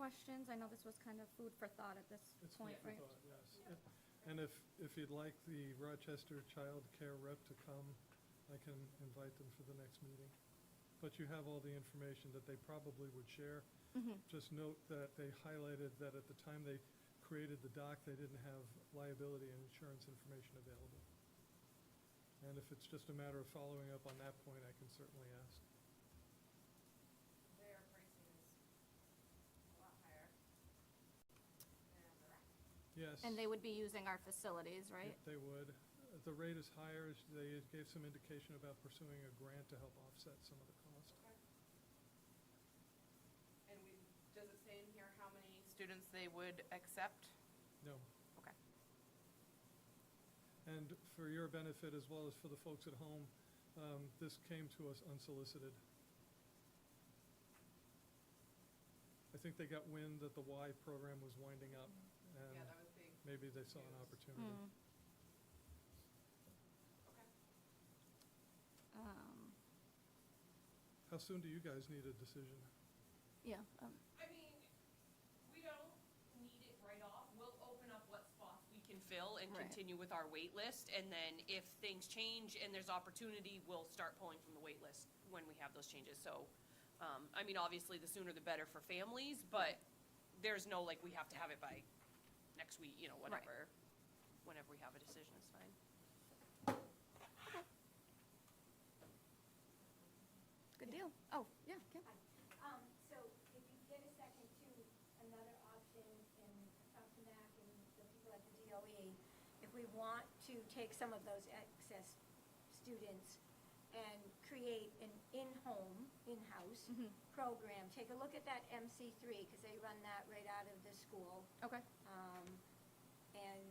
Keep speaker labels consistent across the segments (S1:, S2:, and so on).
S1: questions? I know this was kind of food for thought at this
S2: It's food
S1: point,
S2: for
S1: right?
S2: thought, yes. And if, if you'd like the Rochester Child Care rep to come, I can invite them for the next meeting. But you have all the information that they probably would share.
S1: Mm-hmm.
S2: Just note that they highlighted that at the time they created the doc, they didn't have liability and insurance information available. And if it's just a matter of following up on that point, I can certainly ask.
S3: Their pricing is a lot higher than the rec.
S2: Yes.
S1: And they would be using our facilities, right?
S2: They would. uh, The rate is higher. as They gave some indication about pursuing a grant to help offset some of the cost.
S3: And we, does it say in here how many students they would accept?
S2: No.
S3: Okay.
S2: And for your benefit, as well as for the folks at home, um, this came to us unsolicited. I think they got wind that the Y program was winding up, and
S3: Mm-hmm. Yeah, that was big.
S2: maybe they saw an
S3: Yes.
S2: opportunity.
S1: Mm.
S3: Okay.
S1: Um,
S2: How soon do you guys need a decision?
S1: Yeah, um,
S4: I mean, we don't need it right off. We'll open up what spots we can fill and
S1: Right.
S4: continue with our wait list. And then if things change and there's opportunity, we'll start pulling from the wait list when we have those changes. So, um, I mean, obviously, the sooner the better for families, but there's no, like, we have to have it by next week, you know, whatever. Whenever we have a decision is fine.
S1: good deal. Oh, yeah, Kim?
S5: Um, so if you get a second to another option and something back and the people at the DOE, if we want to take some of those excess students and create an in-home, in-house program, take a look at that MC three, because they run that right out of the school.
S1: Okay.
S5: Um, and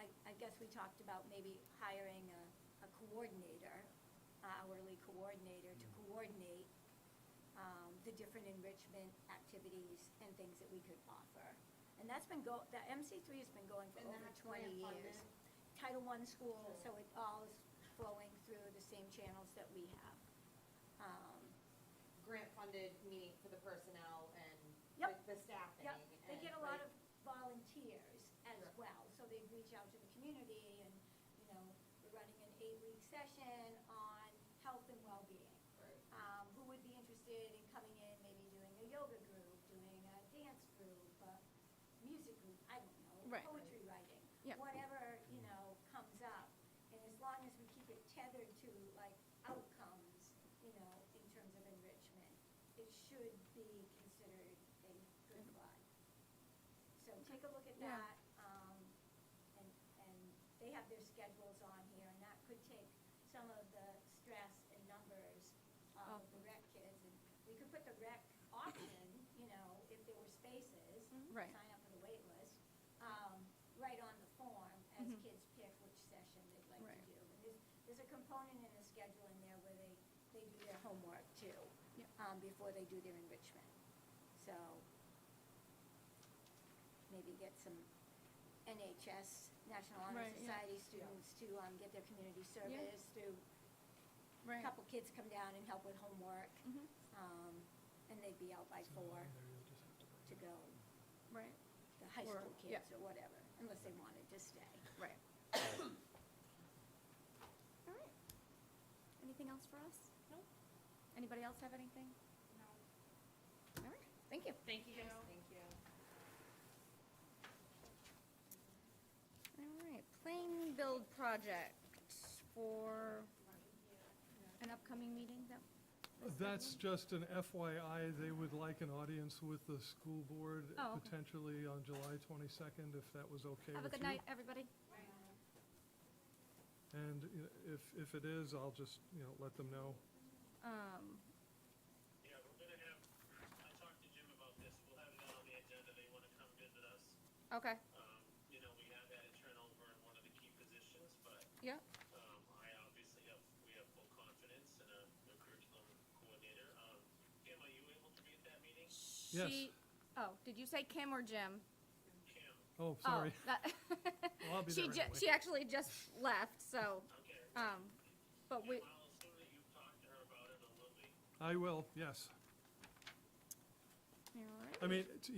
S5: I, I guess we talked about maybe hiring a, a coordinator, hourly coordinator to coordinate, um, the different enrichment activities and things that we could offer. And that's been go, the MC three has been going for
S3: And
S5: over
S3: that's
S5: twenty
S3: grant funded?
S5: years. Title I school, so it all is flowing through the same channels that we have. Um,
S3: Grant funded, meaning for the personnel and
S5: Yep.
S3: the staffing.
S5: Yep, they
S3: and,
S5: get a lot
S3: right.
S5: of volunteers as
S3: Right.
S5: well, so they reach out to the community and, you know, we're running an eight-week session on health and well-being.
S3: Right.
S5: Um, who would be interested in coming in, maybe doing a yoga group, doing a dance group, a music group, I don't know,
S1: Right.
S5: poetry writing.
S1: Yep.
S5: Whatever, you know, comes up, and as long as we keep it tethered to like outcomes, you know, in terms of enrichment, it should be considered a good ride. So take a look at
S1: Yeah.
S5: that, um, and, and they have their schedules on here, and that could take some of the stress and numbers
S1: Off.
S5: of the rec kids, and we could put the rec option, you know, if there were spaces,
S1: Mm-hmm. Right.
S5: sign up for the wait list, um, right on the form as
S1: Mhm.
S5: kids pick which session they'd like
S1: Right.
S5: to do. And there's, there's a component in the schedule in there where they, they do their homework too,
S1: Yep.
S5: um, before they do their enrichment. So, maybe get some NHS, National Honor
S1: Right, yeah.
S5: Society students to, um, get their community service through.
S1: Right.
S5: Couple kids come down and help with homework,
S1: Mhm.
S5: um, and they'd be out by
S2: It's not
S5: four
S2: in there, you'll just have to bring
S5: to
S2: it up.
S5: go,
S1: Right,
S5: the high
S1: Or-
S5: school
S1: yeah.
S5: kids or whatever, unless they wanted to stay.
S1: right. All right. Anything else for us?
S4: No?
S1: Anybody else have anything?
S3: No.
S1: All right, thank you.
S4: Thank you guys.
S3: Thank you.
S1: All right, plane build project for an upcoming meeting that. this
S2: That's
S1: evening?
S2: just an FYI, they would like an audience with the school board
S1: Oh, okay.
S2: potentially on July 22nd, if that was okay with you.
S1: Have a good night, everybody.
S2: And you know, if, if it is, I'll just, you know, let them know.
S1: Um,
S6: Yeah, we're gonna have, I talked to Jim about this, we'll have it on the agenda, they wanna come visit us.
S1: okay,
S6: Um, you know, we have had a turnover in one of the key positions, but,
S1: yeah,
S6: um, I obviously have, we have full confidence in a new curriculum coordinator. Um, Kim, are you able to be at that meeting?
S1: she, oh, did you say Kim or Jim?
S6: Kim,
S1: Oh,
S2: Oh, sorry.
S1: that-
S2: Well, I'll be
S1: She
S2: there
S1: ju-
S2: anyway.
S1: she actually just left, so,
S6: okay.
S1: um, but we,
S6: Kim, I'll assume that you've talked to her
S1: Oh.
S6: about it a little bit.
S2: I will, yes.
S1: all right.
S2: I mean, it's-